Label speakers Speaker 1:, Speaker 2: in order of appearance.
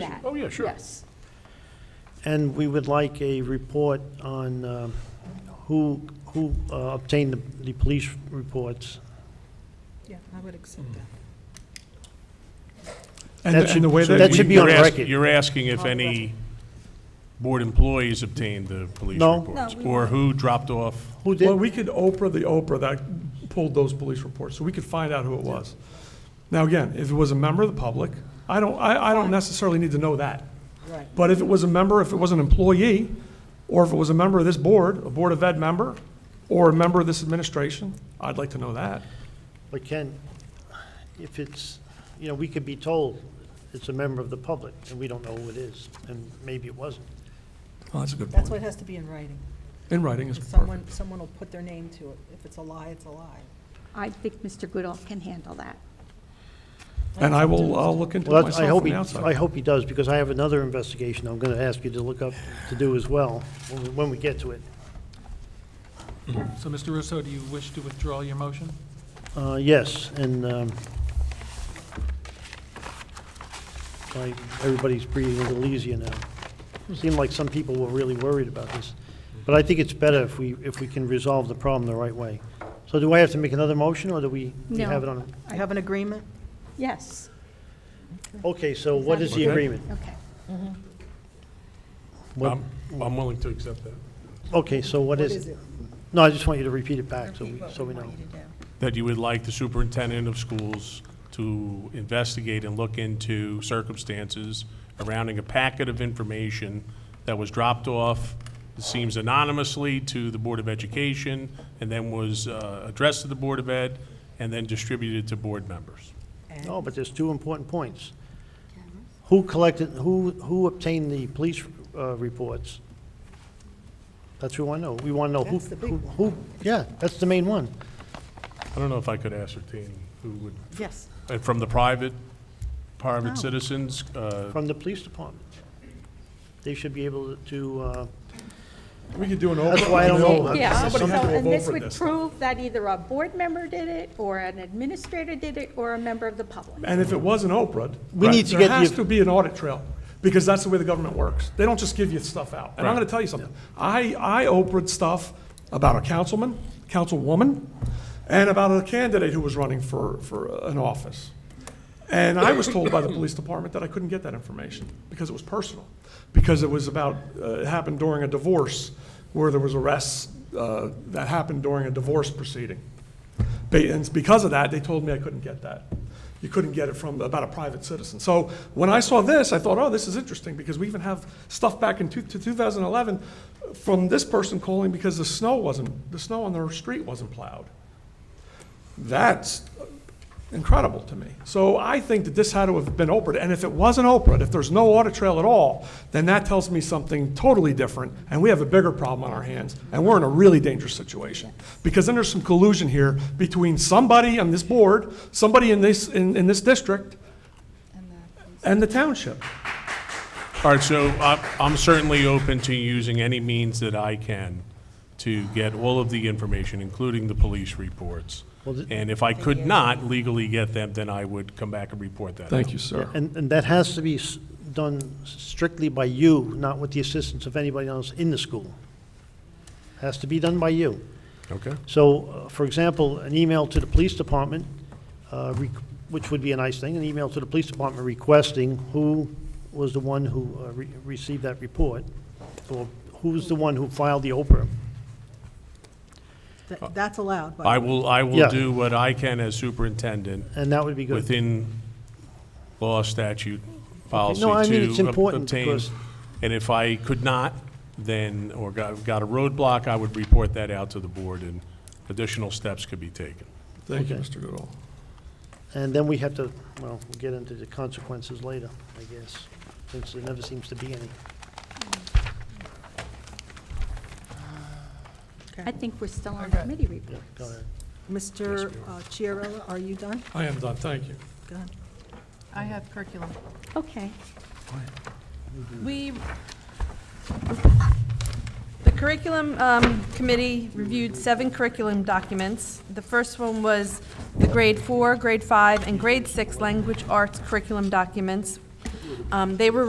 Speaker 1: that.
Speaker 2: Oh, yeah, sure.
Speaker 1: Yes.
Speaker 3: And we would like a report on um, who, who uh, obtained the, the police reports.
Speaker 4: Yeah, I would accept that.
Speaker 5: And
Speaker 3: That
Speaker 5: the-
Speaker 3: should-
Speaker 5: and the way
Speaker 3: so
Speaker 5: that
Speaker 3: that
Speaker 5: we-
Speaker 3: should be on
Speaker 2: You're ask-
Speaker 3: record.
Speaker 2: You're asking if any board employees obtained the police
Speaker 3: No.
Speaker 2: reports?
Speaker 1: No, we-
Speaker 2: Or who dropped off?
Speaker 3: Who
Speaker 5: Well,
Speaker 3: did,
Speaker 5: we could Oprah the Oprah that pulled those police reports, so we could find out who it was. Now, again, if it was a member of the public, I don't, I, I don't necessarily need to know that.
Speaker 4: Right.
Speaker 5: But if it was a member, if it was an employee, or if it was a member of this board, a Board of Ed member, or a member of this administration, I'd like to know that.
Speaker 3: but Ken, if it's, you know, we could be told it's a member of the public, and we don't know who it is, and maybe it wasn't.
Speaker 5: Oh, that's a good
Speaker 4: That's why it has to be in writing.
Speaker 5: In writing is perfect.
Speaker 4: Someone, someone will put their name to it. If it's a lie, it's a lie.
Speaker 1: I think Mr. Goodall can handle that.
Speaker 5: And I will, I'll look into it
Speaker 3: Well, that's- I
Speaker 5: myself
Speaker 3: hope
Speaker 5: from
Speaker 3: he,
Speaker 5: the
Speaker 3: I
Speaker 5: outside.
Speaker 3: hope he does, because I have another investigation I'm gonna ask you to look up, to do as well, when we- when we get to it.
Speaker 6: So, Mr. Russo, do you wish to withdraw your motion?
Speaker 3: Uh, Yes, and um, like, everybody's breathing a little easier now. Seemed like some people were really worried about this, but I think it's better if we, if we can resolve the problem the right way. So do I have to make another motion, or do we we have it
Speaker 1: No.
Speaker 3: on?
Speaker 4: You have an agreement?
Speaker 1: Yes,
Speaker 3: Okay, so what is the
Speaker 5: Okay.
Speaker 3: agreement?
Speaker 1: okay.
Speaker 3: What-
Speaker 2: I'm, I'm willing to accept that.
Speaker 3: Okay, so what is it? No, I just want you to repeat it back, so we,
Speaker 4: Repeat what
Speaker 3: so we
Speaker 4: want
Speaker 3: know.
Speaker 4: you to do.
Speaker 2: That you would like the superintendent of schools to investigate and look into circumstances surrounding a packet of information that was dropped off, it seems anonymously, to the Board of Education, and then was uh, addressed to the Board of Ed, and then distributed to board members.
Speaker 3: No, but there's two important points. Who collected, who, who obtained the police uh, reports? That's what we want to know. We want to know who,
Speaker 4: That's the big
Speaker 3: who-
Speaker 4: one.
Speaker 3: who, yeah, that's the main one.
Speaker 2: I don't know if I could ascertain who would,
Speaker 4: Yes.
Speaker 2: and Uh, from the private, private citizens, uh,
Speaker 3: From the police department. They should be able to, uh,
Speaker 5: We could do an Oprah.
Speaker 3: That's why I don't know.
Speaker 5: and
Speaker 1: Yeah, so,
Speaker 5: Somebody had to
Speaker 1: and
Speaker 5: vote
Speaker 1: this
Speaker 5: for
Speaker 1: would
Speaker 5: this.
Speaker 1: prove that either a board member did it, or an administrator did it, or a member of the public.
Speaker 5: And if it was an Oprah,
Speaker 3: We need to
Speaker 5: there
Speaker 3: get
Speaker 5: has
Speaker 3: the-
Speaker 5: to be an audit trail, because that's the way the government works. They don't just give you stuff out. And I'm going to tell you something. I, I Oprah'd stuff about a councilman, councilwoman, and about a candidate who was running for, for an office. And I was told by the police department that I couldn't get that information because it was personal, because it was about, uh, it happened during a divorce where there was arrests uh, that happened during a divorce proceeding. Ba- And it's because of that, they told me I couldn't get that. You couldn't get it from, about a private citizen. So when I saw this, I thought, oh, this is interesting because we even have stuff back in two- to 2011 from this person calling because the snow wasn't, the snow on their street wasn't plowed. That's incredible to me. So I think that this had to have been Oprah. And if it wasn't Oprah, if there's no audit trail at all, then that tells me something totally different, and we have a bigger problem on our hands, and we're in a really dangerous situation. Because then there's some collusion here between somebody on this board, somebody in this, in, in this district, and the township.
Speaker 2: All right, so I- I'm certainly open to using any means that I can to get all of the information, including the police reports.
Speaker 3: Well, th-
Speaker 2: And if I could not legally get them, then I would come back and report that. out.
Speaker 5: Thank you, sir.
Speaker 3: and, and that has to be s- done strictly by you, not with the assistance of anybody else in the school. Has to be done by you.
Speaker 2: Okay.
Speaker 3: So, uh, for example, an email to the police department, uh, re- which would be a nice thing, an email to the police department requesting who was the one who uh, re- received that report, or who's the one who filed the Oprah. Uh,
Speaker 4: That- That's allowed, but.
Speaker 2: I will, I will
Speaker 3: Yeah.
Speaker 2: do what I can as superintendent
Speaker 3: And that would be good.
Speaker 2: within law, statute, policy
Speaker 3: No, I mean, it's
Speaker 2: to ob-
Speaker 3: important
Speaker 2: obtain.
Speaker 3: because-
Speaker 2: And if I could not, then, or got got a roadblock, I would report that out to the board and additional steps could be taken.
Speaker 5: Thank you,
Speaker 3: Okay.
Speaker 5: Mr. Goodall.
Speaker 3: And then we have to, well, we'll get into the consequences later, I guess, since there never seems to be any.
Speaker 1: I think we're still on committee
Speaker 3: Yeah,
Speaker 1: report.
Speaker 3: Go ahead.
Speaker 4: Mr. uh, Chiarella, are you done?
Speaker 5: I am done, thank you.
Speaker 4: Go ahead.
Speaker 7: I have curriculum.
Speaker 1: Okay,
Speaker 7: We, the curriculum um, committee reviewed seven curriculum documents. The first one was the grade four, grade five, and grade six language arts curriculum documents. Um, They were